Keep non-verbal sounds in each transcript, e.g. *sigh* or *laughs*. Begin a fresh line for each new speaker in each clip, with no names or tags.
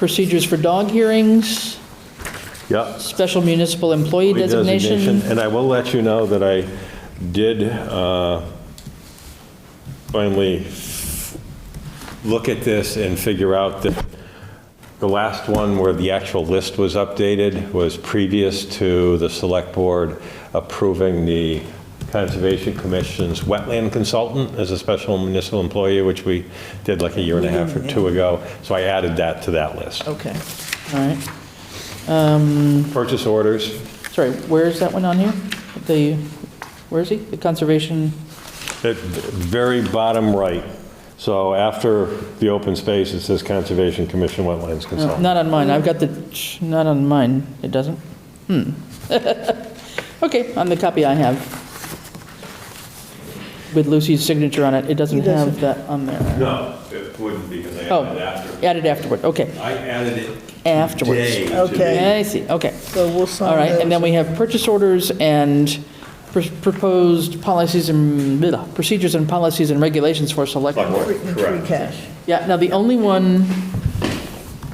procedures for dog hearings,
Yep.
special municipal employee designation.
And I will let you know that I did uh, finally look at this and figure out that the last one where the actual list was updated was previous to the Select Board approving the Conservation Commission's wetland consultant as a special municipal employee, which we did like a year and a half or two ago. So I added that to that list.
Okay, all right.
Purchase orders,
Sorry, where is that one on here? The, where is he? The conservation,
At very bottom right. So after the open space, it says Conservation Commission Wetlands
no,
Consultant.
not on mine, I've got the, not on mine, it doesn't? Hmm. *laughs* Okay, on the copy I have. With Lucy's signature on it, it doesn't have that on there.
No, it wouldn't because I
Oh,
added it after.
added afterward, okay,
I added it
afterwards.
today. to
Okay.
the-
I see, okay.
So we'll sign
All right, and then we
those.
have purchase orders and pr- proposed policies and, blah, procedures and policies and regulations for select
Select
board.
board,
Free- Free
Correct.
cash.
Yeah, now the only one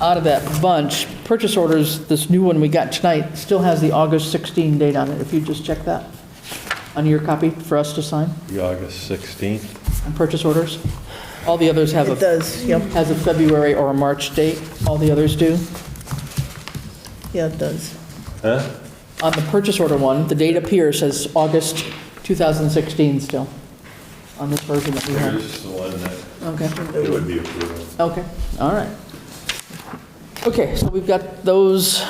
out of that bunch, purchase orders, this new one we got tonight, still has the August 16 date on it, if you just check that on your copy for us to sign,
The August 16th.
on purchase orders. All the others have
It
a,
does, yep,
has a February or a March date, all the others do.
yeah, it does.
Huh?
On the purchase order one, the date up here says August 2016 still, on this version that we have.
Here's the one that
Okay.
it would be approved.
Okay, all right. Okay, so we've got those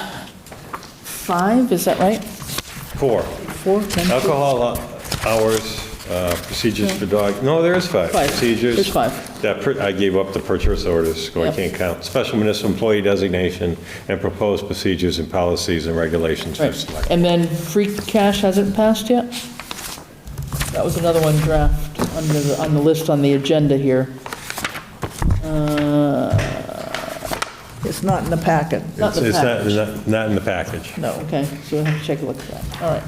five, is that right?
Four,
Four, ten, fifteen?
alcohol hours, uh, procedures for dog, no, there is five.
Five.
Procedures.
There's five.
That, per- I gave up the purchase orders, so I
Yep.
can't count. Special municipal employee designation and proposed procedures and policies and regulations for select.
Right, and then free cash hasn't passed yet? That was another one draft under the, on the list on the agenda here. Uh,
It's not in the packet.
Not the
It's-
package.
It's not- not, not in the package.
No, okay, so we'll have to take a look at that, all right.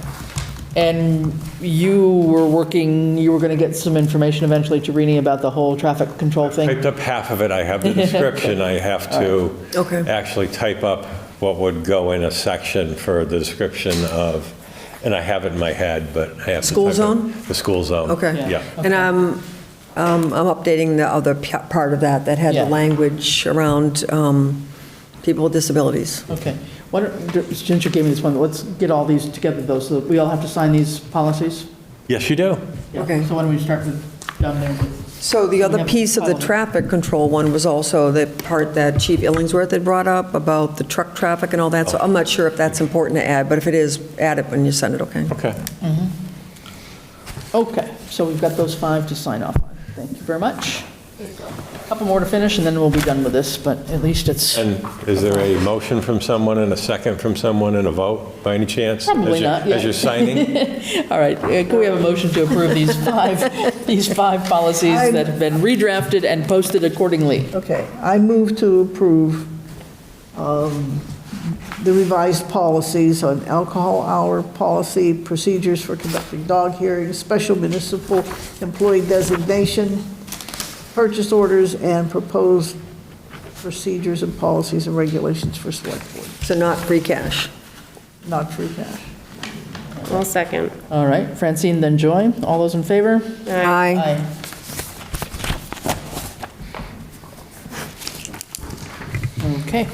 And you were working, you were going to get some information eventually to Rini about the whole traffic control thing?
Typed up half of it,
*laughs*
I have the description, I have to
Okay.
actually type up what would go in a section for the description of, and I have it in my head, but I have to
School
type it-
zone?
The school zone.
Okay.
Yeah.
And I'm, um, I'm updating the other p- part of that, that had the
Yeah.
language around um, people with disabilities.
Okay. Why don't, since you gave me this one, let's get all these together, though, so that we all have to sign these policies?
Yes, you do.
Yeah.
Okay.
So why don't we start with, down there with,
So the
We
other
have
piece of the
follow-up.
traffic control one was also the part that Chief Illingsworth had brought up about the truck traffic and all that, so
Oh.
I'm not sure if that's important to add, but if it is, add it when you send it, okay?
Okay.
okay, so we've got those five to sign off on. Thank you very much. Couple more to finish, and then we'll be done with this, but at least it's,
And is there a motion from someone and a second from someone and a vote by any chance? as
Probably
you-
not, yeah.
As you're
*laughs*
signing?
all right, uh, can we have a motion to approve
*laughs*
these five, these five policies that have been redrafted and posted accordingly?
Okay, I move to approve um, the revised policies on alcohol hour policy, procedures for conducting dog hearings, special municipal employee designation, purchase orders, and proposed procedures and policies and regulations for select board,
So not free cash.
not free cash.
I'll second.
All right, Francine, then Joy, all those in favor?
Aye.
Okay.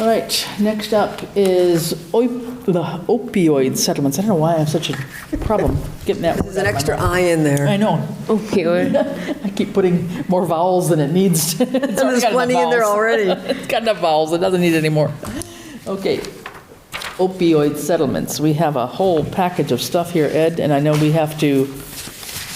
All right, next up is oip- the opioid settlements. I don't know why I have such a problem getting that.
There's an extra I in there.
I know. *laughs*
Opioid.
I keep putting more vowels than it needs. *laughs* It's already got
There's
enough
plenty in there
vowels.
already.
*laughs* It's got enough vowels, it doesn't need any more. Okay, opioid settlements, we have a whole package of stuff here, Ed, and I know we have to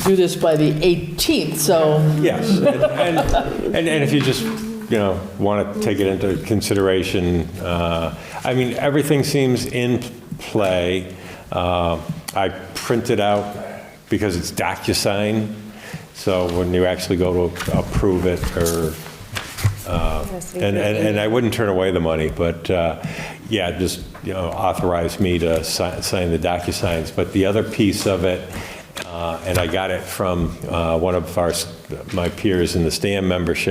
do this by the 18th, so,
Yes. And, and and if you just, you know, want to take it into consideration, uh, I mean, everything seems in play. Uh, I printed out, because it's DocuSign, so when you actually go to approve it or And, and and I wouldn't turn away the money, but, uh, yeah, just, you know, authorize me to si- sign the DocuSigns. But the other piece of it, uh, and I got it from uh, one of our, s- my peers in the STAM membership,